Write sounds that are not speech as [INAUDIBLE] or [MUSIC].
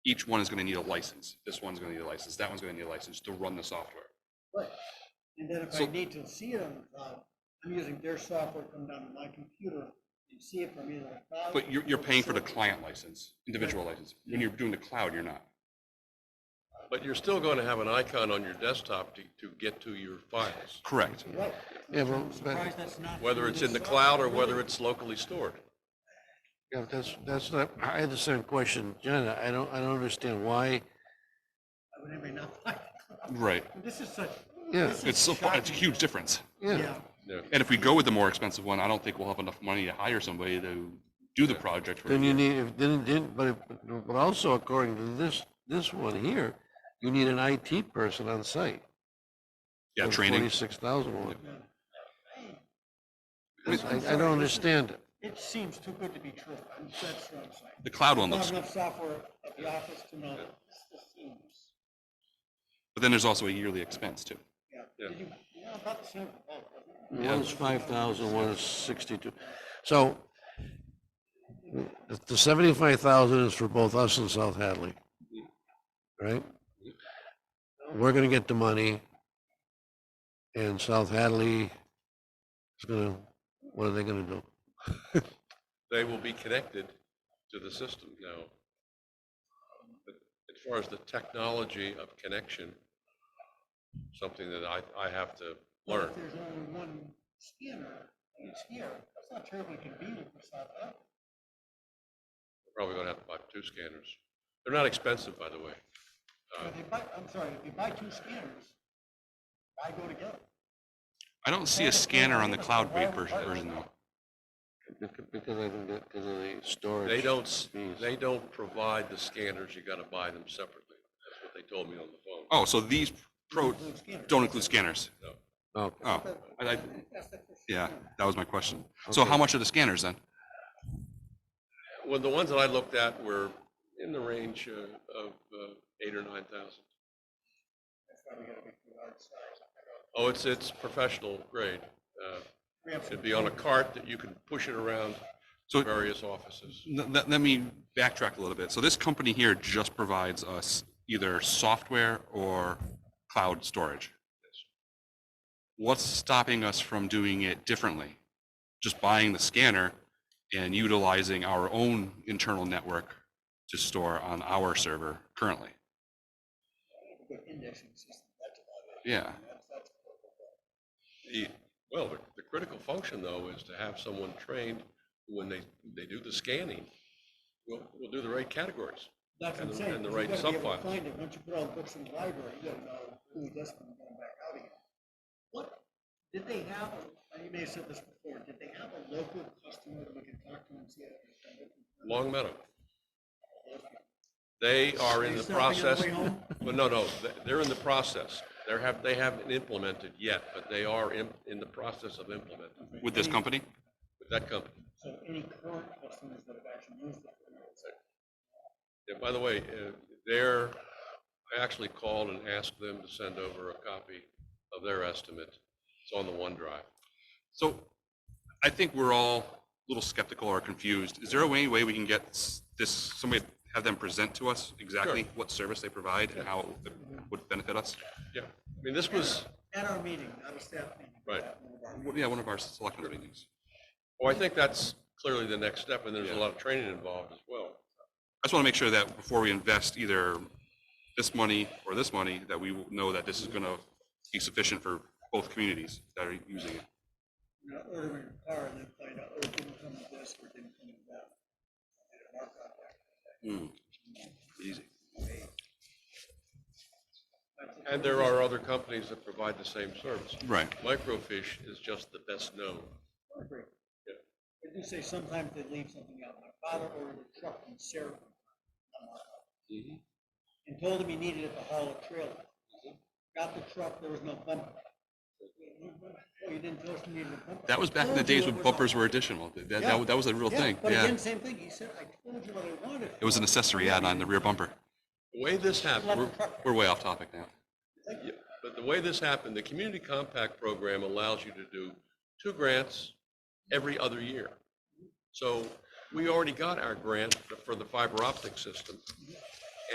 each one is going to need a license. This one's going to need a license, that one's going to need a license to run the software. But, and then if I So- need to see it on the cloud, I'm using their software, come down to my computer and see it from either the cloud. But you're, you're paying for the or- client license, individual license. When you're doing the cloud, you're not. But you're still going to have an icon on your desktop to, to get to your files, Correct. Right. Yeah, well, I'm surprised that's not whether through it's this in the software. cloud or whether it's locally stored. Yeah, that's, that's not, I had the same question, John, I don't, I don't understand why, I would never not like it. Right. This is such. Yeah. this is It's, so- [LAUGHS] it's a shocking. huge difference. yeah, Yeah, Yeah. And if we go with the more expensive one, I don't think we'll have enough money to hire somebody to do the project. for a then year. you need, if, then, then, but, if- but also according to this, this one here, you need an IT person on site. Yeah, training. Forty-six thousand one, I mean, I, I don't understand it, it seems too good to be true. I'm- That's what I'm saying. The cloud one Not looks, enough software at the office to know. This just seems- but then there's also a yearly expense too. Yeah. Yeah. Did you- yeah, about the same for both, wasn't it? one is five thousand, one is sixty-two, so. the- The seventy-five thousand is for both us and South Hadley, right? We're gonna get the money. And South Hadley is gonna, what are they gonna do? They will be connected to the system now. But As far as the technology of connection, something that I, I have to Well, learn. If there's only one scanner, and it's here, that's not terribly convenient for South Africa. Probably going to have to buy two scanners. They're not expensive, by the way. But if you buy, I'm sorry, if you buy two scanners, why go together? I don't see a scanner on the cloud-based version, version though. Bec- Because I think that, because of the storage. They don't, s- Jeez. they don't provide the scanners. You got to buy them separately. That's what they told me on the phone. Oh, so these pro, Include scanners. don't include scanners? Okay. Oh, I, I, That's the first yeah, scanner. that was my question. So how much are the scanners then? Well, the ones that I looked at were in the range uh, of uh, eight or nine thousand. That's why we gotta be too large size. Oh, it's, it's professional grade. Uh, We have It'd some- be on a cart that you can push it around So- to various offices. Let, let- let me backtrack a little bit. So this company here just provides us either software or cloud storage. What's stopping us from doing it differently? Just buying the scanner and utilizing our own internal network to store on our server currently? a good indexing system, that's about it. Yeah. That's- that's what we're doing. The- Well, the, the critical function though is to have someone trained when they, they do the scanning, will, will do the right categories. That's what And I'm the- saying. and the 'cause right You gotta be able subfile. to find it, once you put all the books in the library, you gotta know who this one, going back out again. What, did they have, a- you may have said this before, did they have a local customer that we could talk to and see if they're Long Meadow. They are in the process. [LAUGHS] Well, no, no, th- they're in the process. They're have, they haven't implemented yet, but they are in, in the process of implementing With this company? with that company. So any current customers that have actually used it. you know, it's like, And by the way, uh, they're, I actually called and asked them to send over a copy of their estimate. It's on the OneDrive. So I think we're all a little skeptical or confused. Is there a way, way we can get s- this, somebody, have them present to us exactly what service they provide and how it would- would benefit us? Yeah, I mean, this was, At our meeting, not a staff meeting. Right. Well, Yeah, one of our selectmen meetings. well, I think that's clearly the next step, and there's a lot of training involved as well. I just want to make sure that before we invest either this money or this money, that we will know that this is going to be sufficient for both communities that are using it. You know, ordering a car and then find out, oh, it didn't come with this or it didn't come with that. They didn't mark on that. Hmm. Easy. And there are other companies that provide the same service. Right. Microfiche is just the best known. I agree. Yeah. They do say sometimes they leave something out. My father ordered a truck from Sarah. Mm-hmm. And told him he needed it to haul a trailer. Got the truck, there was no bumper. Oh, you didn't tell us you needed a bumper? That was back in the Told you days it when was a- bumpers were additional. That, Yeah. that, that was a real Yeah, thing. But Yeah. again, same thing. He said, I told you what I wanted. It was an accessory add on the rear bumper. The way this happened, We're, we're way off topic now. Yeah, But the way this happened, the Community Compact Program allows you to do two grants every other year. So we already got our grant for the fiber optic system.